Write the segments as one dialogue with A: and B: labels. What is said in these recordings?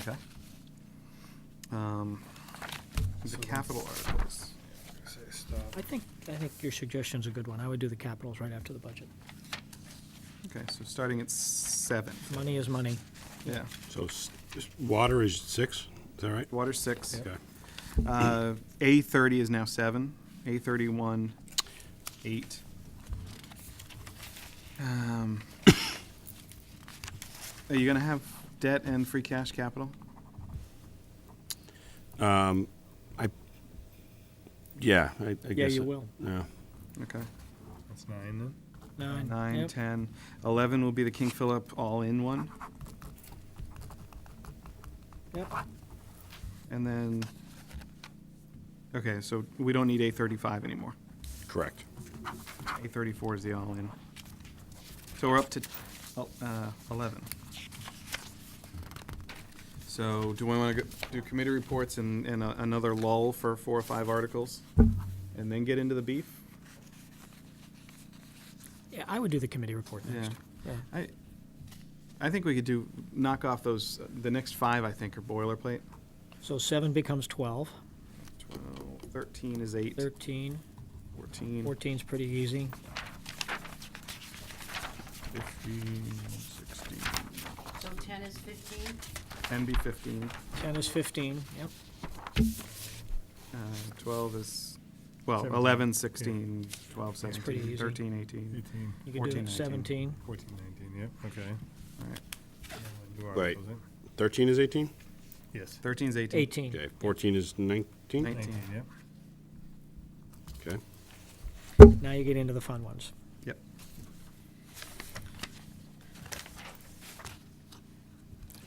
A: Okay. Um, The capital articles.
B: Say stop.
C: I think, I think your suggestion's a good one. I would do the capitals right after the budget.
A: Okay, so starting at seven,
C: Money is money.
A: yeah.
D: So s- water is six, is that right?
A: Water, six.
D: Okay.
A: Uh, A thirty is now seven, A thirty-one, eight. Um, Are you gonna have debt and free cash capital?
D: Um, Yeah, I, I guess.
C: Yeah, you
D: it-
C: will.
D: Yeah.
A: Okay.
B: That's nine then?
C: Nine.
A: Nine,
C: Yep.
A: ten, eleven will be the King Philip all-in one,
C: Yep.
A: and then, okay, so we don't need A thirty-five anymore.
D: Correct.
A: A thirty-four is the all-in. So we're up to, oh, uh, eleven. So do we wanna go- do committee reports and, and a- another lull for four or five articles? And then get into the beef?
C: Yeah, I would do the committee report
A: Yeah.
C: next. Yeah.
A: I, I think we could do, knock off those, the next five, I think, are boilerplate.
C: So seven becomes 12,
A: Twelve, thirteen is eight,
C: 13,
A: fourteen,
C: 14's pretty easy.
A: fifteen, sixteen,
E: So ten is fifteen?
A: ten be fifteen.
C: 10 is 15, yep.
A: Uh, 12 is, well,
B: Seventeen.
A: 11, 16, 12,
C: That's
A: 17,
C: pretty easy.
A: 13, 18.
B: Eighteen.
C: You could
A: 14,
C: do
A: 19.
C: 17.
B: Fourteen, nineteen, yep, okay.
A: All right.
B: New
D: Wait.
B: articles, eh?
D: Thirteen is eighteen?
B: Yes.
A: 13 is 18.
C: 18.
D: Okay, fourteen is nineteen?
A: Nine-
B: Nineteen, yep.
D: Okay.
C: Now you get into the fun ones.
A: Yep.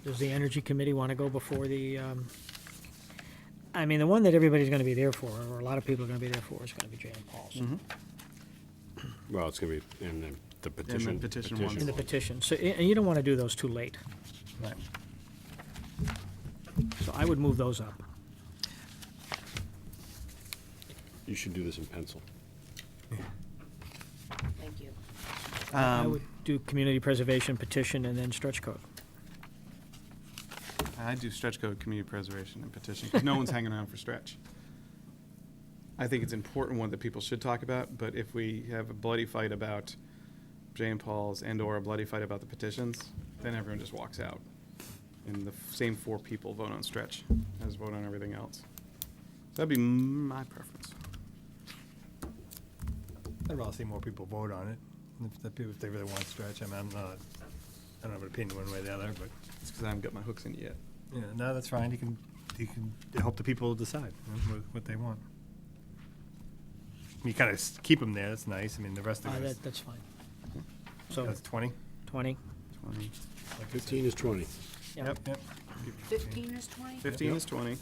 C: Does the Energy Committee want to go before the, um, I mean, the one that everybody's going to be there for, or a lot of people are going to be there for, is going to be Jan Paul's.
D: Well, it's gonna be in the- the petition.
A: petition one.
C: And the petition. So, and and you don't want to do those too late.
A: Right.
C: So I would move those up.
D: You should do this in pencil.
E: Thank you.
C: I
A: Um,
C: would do community preservation petition and then stretch code.
A: I do stretch code, community preservation, and petition, 'cause no one's hanging around for stretch. I think it's an important one that people should talk about, but if we have a bloody fight about Jane Paul's and/or a bloody fight about the petitions, then everyone just walks out. And the f- same four people vote on stretch as vote on everything else. So That'd be my preference.
B: I'd rather see more people vote on it, if the people, if they really want to stretch, I mean, I'm not, I don't have an opinion one way or the other, but,
A: It's because I haven't got my hooks in it yet.
B: you know, no, that's fine, you can, you can help the people decide, you know, what, what they want. You kind of keep them there, that's nice, I mean, the rest
C: Uh,
B: of it,
C: that, that's fine. So
B: that's twenty?
C: twenty.
A: Twenty.
B: like I said.
D: Fifteen is twenty.
C: yeah.
B: Yep, yep,
E: Fifteen is twenty?
A: 15
B: Yep.
A: is 20,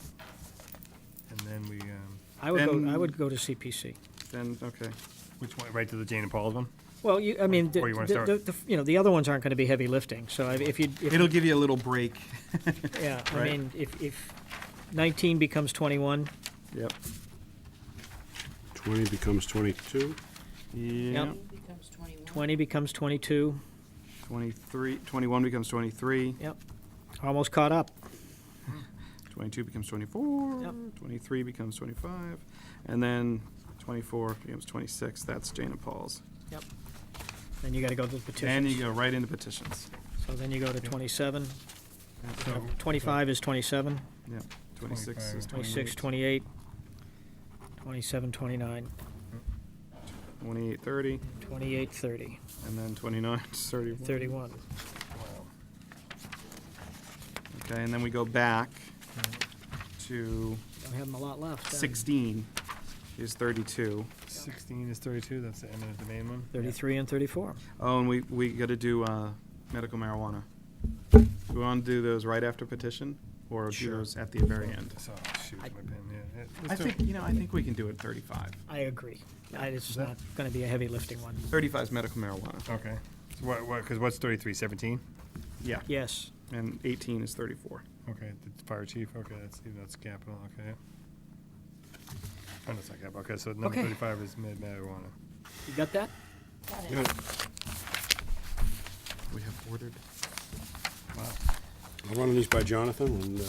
B: and then we, um,
C: I would go, I
A: Then-
C: would go to CPC.
A: then, okay.
B: which one, right to the Jane and Paul's one?
C: Well, you, I mean, the,
B: Or you wanna
C: the-
B: start-
C: the- the- you know, the other ones aren't gonna be heavy lifting, so I- if you, if,
A: It'll give you a little break.
C: yeah, I
A: right.
C: mean, if, if nineteen becomes twenty-one,
A: Yep.
D: Twenty becomes twenty-two.
A: Yeah.
C: Yep.
E: Becomes twenty-one.
C: twenty becomes twenty-two,
A: 23, 21 becomes 23,
C: yep, almost caught up.
A: 22 becomes 24,
C: Yep.
A: 23 becomes 25, and then 24 becomes 26. That's Jane and Paul's.
C: Yep. Then you gotta go to the
A: Then you
C: petitions.
A: go right into petitions.
C: So then you go to twenty-seven.
B: So-
C: Twenty-five is twenty-seven.
A: Yep. 26 is
B: 25.
C: 26,
A: 28,
C: 28, 27, 29,
A: 28, 30,
C: 28, 30,
A: and then 29, 31.
C: 31.
A: Okay, and then we go back to
C: Don't have them a lot left. then.
A: 16 is 32.
B: 16 is 32, that's the end of the main one?
C: 33 and 34.
A: Oh, and we, we got to do uh, medical marijuana. Do we want to do those right after petition, or do
B: Sure.
A: those at the very end?
B: So, shoot, my
C: I-
B: pen, yeah. yeah,
A: I
B: let's do it.
A: think, you know, I think we can do it 35.
C: I agree. I- It's
B: that-
C: not going to be a heavy lifting one.
A: 35 is medical marijuana.
B: Okay, so what, what, because what's 33, 17?
A: Yeah,
C: Yes,
A: and 18 is 34.
B: Okay, the fire chief, okay, that's, that's capital, okay. Oh, that's not capital, okay, so number
C: Okay.
B: 35 is mid marijuana.
C: you got that?
E: Got it.
A: We have ordered.
B: Wow.
D: I'll run these by Jonathan and, uh,